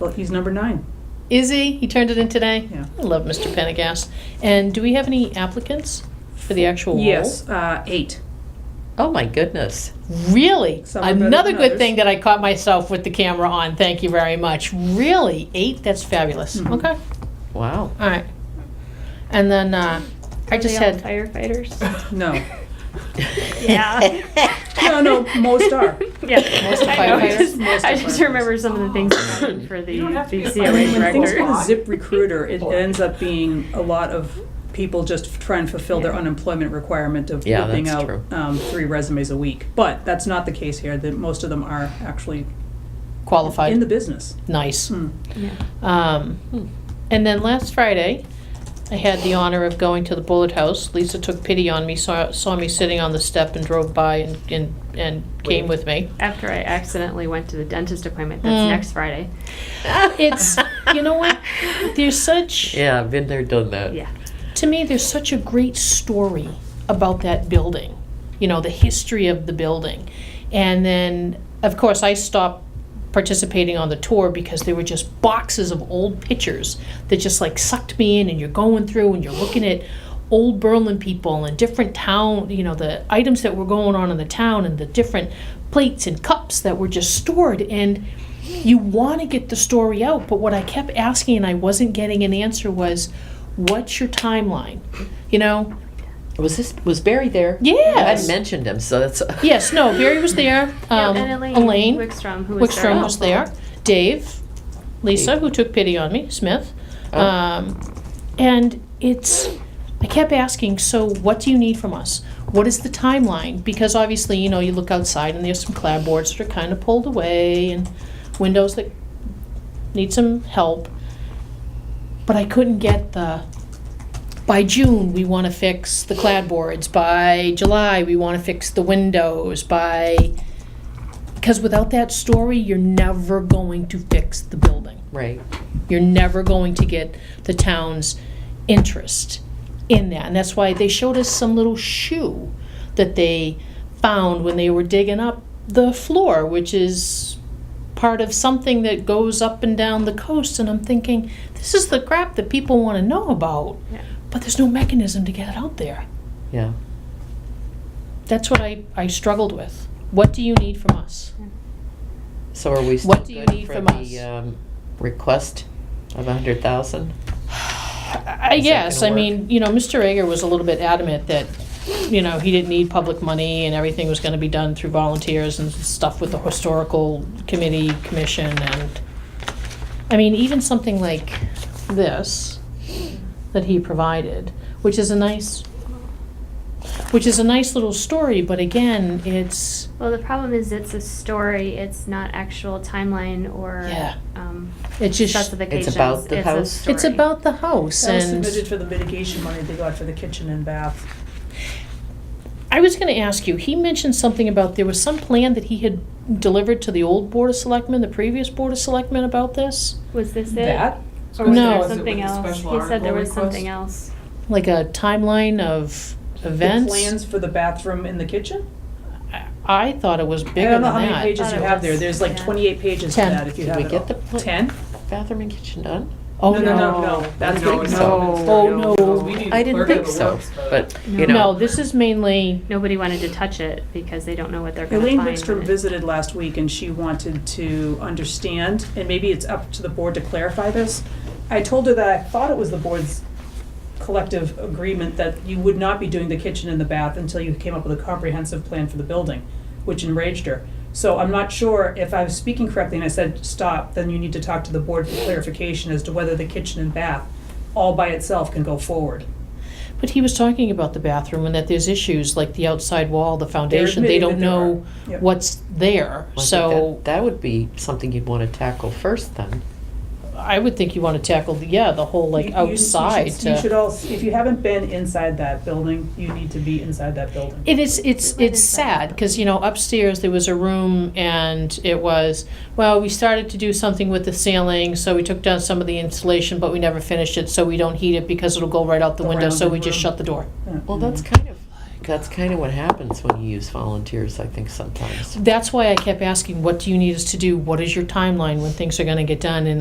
Well, he's number nine. Is he? He turned it in today? Yeah. I love Mr. Pendergast. And do we have any applicants for the actual role? Yes, uh, eight. Oh, my goodness. Really? Some are better Another than good others. thing that I caught myself with the camera on. Thank you very much. Really? Eight? That's fabulous. Mhm. Okay. Wow. All right. And then uh, I just Are they all had. firefighters. No. Yeah. No, no, most are. Yeah. Most I know, I firefighters. just- Most I just firefighters. remember some of the things that happened for the You don't have to the get I Yeah, COA mean, when things go director. to Zip Recruiter, it ends up being a lot of people just trying to fulfill their Yeah. unemployment requirement of Yeah, whipping that's out true. um, three resumes a week. But that's not the case here. That most of them are actually Qualified. in the business. nice. Hmm. Yeah. Um, Hmm. And then last Friday, I had the honor of going to the Bullet House. Lisa took pity on me, saw, saw me sitting on the step and drove by and, and, and came with me. After I accidentally went to the dentist appointment, Mm. that's next Friday. It's, you know what? There's such, Yeah, I've been there, done that. Yeah. to me, there's such a great story about that building, you know, the history of the building. And then, of course, I stopped participating on the tour because there were just boxes of old pictures that just like sucked me in, and you're going through and you're looking at old Berlin people and different town, you know, the items that were going on in the town and the different plates and cups that were just stored. And you want to get the story out, but what I kept asking and I wasn't getting an answer was, what's your timeline? You know? Was this, was Barry there? Yes. I mentioned him, so that's. Yes, no, Barry was there. Um, and Elaine, Wickstrom, who was there Wickstrom was also. there. Dave, Lisa, who took pity on me, Smith. Oh. Um, and it's, I kept asking, so what do you need from us? What is the timeline? Because obviously, you know, you look outside and there's some clapboards that are kind of pulled away and windows that need some help. But I couldn't get the, by June, we want to fix the cladboards. By July, we want to fix the windows. By, because without that story, you're never going to fix the building. Right. You're never going to get the town's interest in that. And that's why they showed us some little shoe that they found when they were digging up the floor, which is part of something that goes up and down the coast. And I'm thinking, this is the crap that people want to know about, Yeah. but there's no mechanism to get it out there. Yeah. That's what I, I struggled with. What do you need from us? So are we still What do you good need for from the, us? um, request of a hundred thousand? I Is that guess, I gonna work? mean, you know, Mr. Egger was a little bit adamant that, you know, he didn't need public money and everything was gonna be done through volunteers and stuff with the historical committee, commission, and, I mean, even something like this that he provided, which is a nice, which is a nice little story, but again, it's, Well, the problem is it's a story. It's not actual timeline or Yeah. um, it's just, specifications. about the it's A house? story. it's about the house That was and. submitted for the mitigation money they got for the kitchen and bath. I was going to ask you, he mentioned something about there was some plan that he had delivered to the old Board of Selectmen, the previous Board of Selectmen about this? Was this it? That? Or was No. there Was it something else. He said there was something else. Like a timeline of The events? plans for the bathroom in the kitchen? I- I thought it was I bigger don't than know how many that. pages Thought you it have was- there. There's like yeah. twenty-eight pages to Ten. that if you Did have we it get all. the pl- Ten? Bathroom and kitchen done? Oh, No, no, no, no. That's what it was. Oh, no. I didn't think so, but, you No. No, know. this is mainly, Nobody wanted to touch it because they don't know what they're going to Elaine find. Wickstrom when it- visited last week and she wanted to understand, and maybe it's up to the board to clarify this. I told her that I thought it was the board's collective agreement that you would not be doing the kitchen and the bath until you came up with a comprehensive plan for the building, which enraged her. So I'm not sure if I was speaking correctly and I said, stop, then you need to talk to the board for clarification as to whether the kitchen and bath all by itself can go forward. but he was talking about the bathroom and that there's issues like the outside wall, the foundation, they admitting that don't there know are. Yep. what's there. I think So that- That would be something you'd wanna tackle first then. I would think you want to tackle, the- yeah, the whole like You- you- you outside should- to. You should all, if you haven't been inside that building, you need to be inside that building. It is, it's, Right it's inside. sad, because, you know, upstairs, there was a room, and it was, well, we started to do something with the ceiling, so we took down some of the insulation, but we never finished it, so we don't heat it, because it'll go right out the The window, so rounded we just room. shut the door. Well, that's Mm-hmm. kind of, that's kind of what happens when you use volunteers, I think, sometimes. That's why I kept asking, what do you need us to do? What is your timeline when things are gonna get done? And